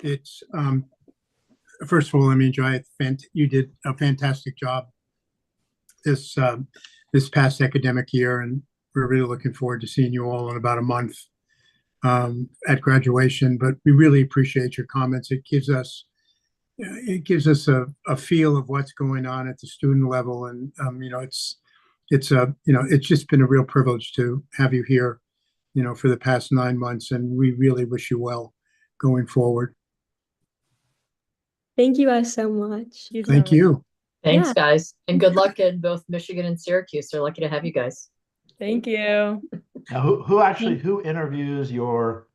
it's, um, first of all, let me enjoy it. Fant- You did a fantastic job this, um, this past academic year, and we're really looking forward to seeing you all in about a month um, at graduation, but we really appreciate your comments. It gives us, it gives us a, a feel of what's going on at the student level, and, um, you know, it's, it's a, you know, it's just been a real privilege to have you here, you know, for the past nine months, and we really wish you well going forward. Thank you guys so much. Thank you. Thanks, Yeah. guys. And good luck in both Michigan and Syracuse. They're lucky to have you guys. Thank you. Now, who, who actually, Hmm. who interviews your,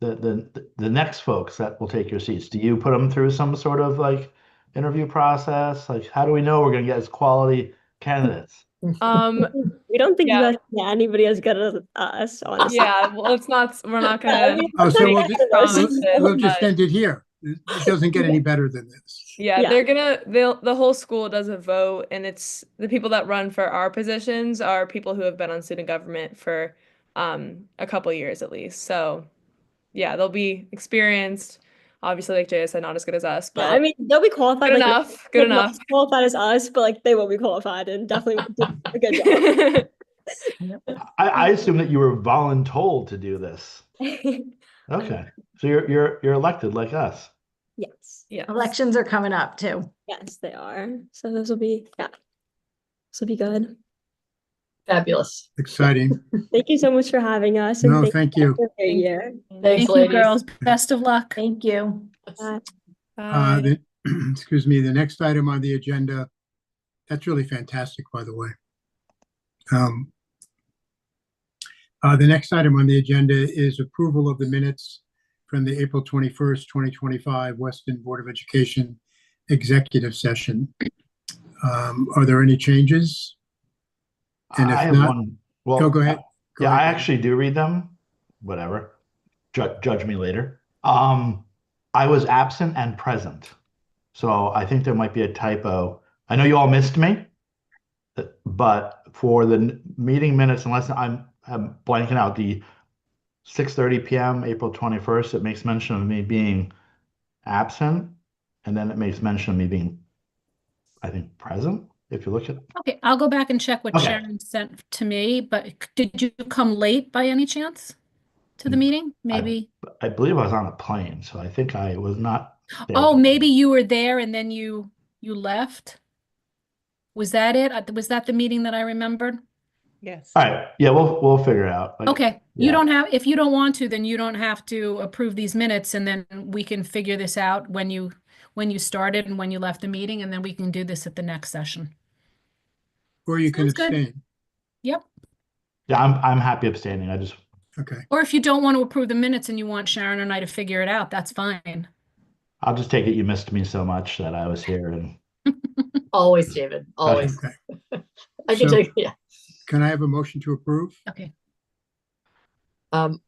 the, the, the next folks that will take your seats? Do you put them through some sort of like interview process? Like, how do we know we're gonna get as quality candidates? Um, We don't think Yeah. you guys, yeah, anybody has got us, us honestly. yeah, well, it's not, we're not gonna, Oh, so we'll Sorry, just- guys. We'll we'll just Bye. end it here. It it doesn't get any better than this. yeah, Yeah. they're gonna, they'll, the whole school does a vote and it's, the people that run for our positions are people who have been on student government for, um, a couple years at least, so, yeah, they'll be experienced, obviously, like Jaya said, not as good as us, But I but mean, they'll be qualified. good like, enough, like, good not enough. as qualified as us, but like they will be qualified and definitely did a good job. I, I Hmm. assume that you were voluntold to do this. Okay, so you're, you're, you're elected like us. yes, Yeah. Elections are coming up too. yes, they are. So those will be yeah, this will be good. Fabulous. Exciting. Thank you so much for having us. No, thank you. for being here. Thanks, Thank you, girls. ladies. Best of luck. Thank you. Bye. Uh, Bye. the- Excuse me, the next item on the agenda, that's really fantastic, by the way. Um, uh, The next item on the agenda is approval of the minutes from the April 21st, 2025 Weston Board of Education Executive Session. Um, Are there any changes? And if I have not- one. Well, Go- go ahead. Go Yeah, I ahead. actually do read them. Whatever. Judge, judge me later. Um, I was absent and present. So I think there might be a typo. I know you all missed me, but for the n- meeting minutes, unless I'm, I'm blanking out the 6:30 PM, April 21st, it makes mention of me being absent, and then it makes mention of me being, I think, present. If you look at, Okay, I'll go back and check what Okay. Sharon sent to me, but c- did you come late by any chance to the Mm, meeting? Maybe. I believe I was on a plane, so I think I was not. there. Oh, maybe you were there and then you, you left? Was that it? Uh, Was that the meeting that I remembered? Yes. All right. Yeah, we'll we'll figure it out. Like, Okay, you yeah. don't have, if you don't want to, then you don't have to approve these minutes and then we can figure this out when you, when you started and when you left the meeting, and then we can do this at the next session. Or you can Sounds good. abstain. Yep. Yeah, I'm I'm happy abstaining. I just Okay, Or if you don't want to approve the minutes and you want Sharon and I to figure it out, that's fine. I'll just take it you missed me so much that I was here and Always, David, always. okay. I can So- take, yeah. Can I have a motion to approve? Okay, Um,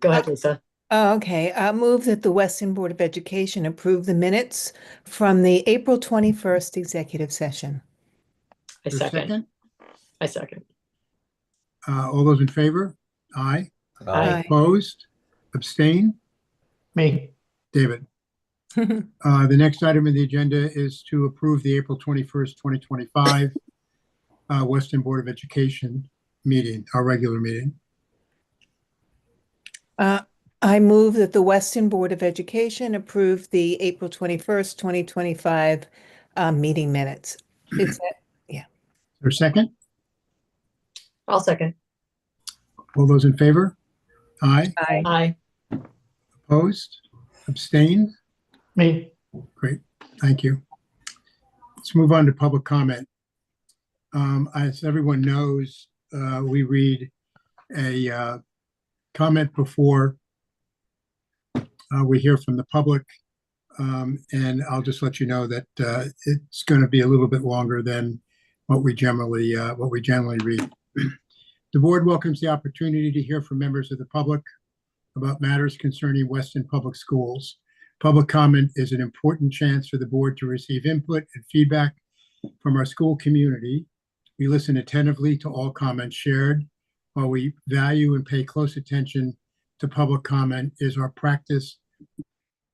go ahead, Lisa. Oh, okay. I move that the Weston Board of Education approve the minutes from the April 21st executive session. I Is there a second. I second. Uh, All those in favor? Aye. Aye. Opposed? Abstain? me. David? Uh, The next item on the agenda is to approve the April 21st, 2025 uh, Weston Board of Education meeting, our regular meeting. Uh, I move that the Weston Board of Education approve the April 21st, 2025 uh, meeting minutes. Is that- Is there a second? I'll second. All those in favor? Aye. Aye. Opposed? Abstain? Me. Thank you. Let's move on to public comment. Um, as everyone knows, uh, we read a, uh, comment before uh, we hear from the public. Um, and I'll just let you know that, uh, it's going to be a little bit longer than what we generally, uh, what we generally read. The board welcomes the opportunity to hear from members of the public about matters concerning Weston Public Schools. Public comment is an important chance for the board to receive input and feedback from our school community. We listen attentively to all comments shared. While we value and pay close attention to public comment is our practice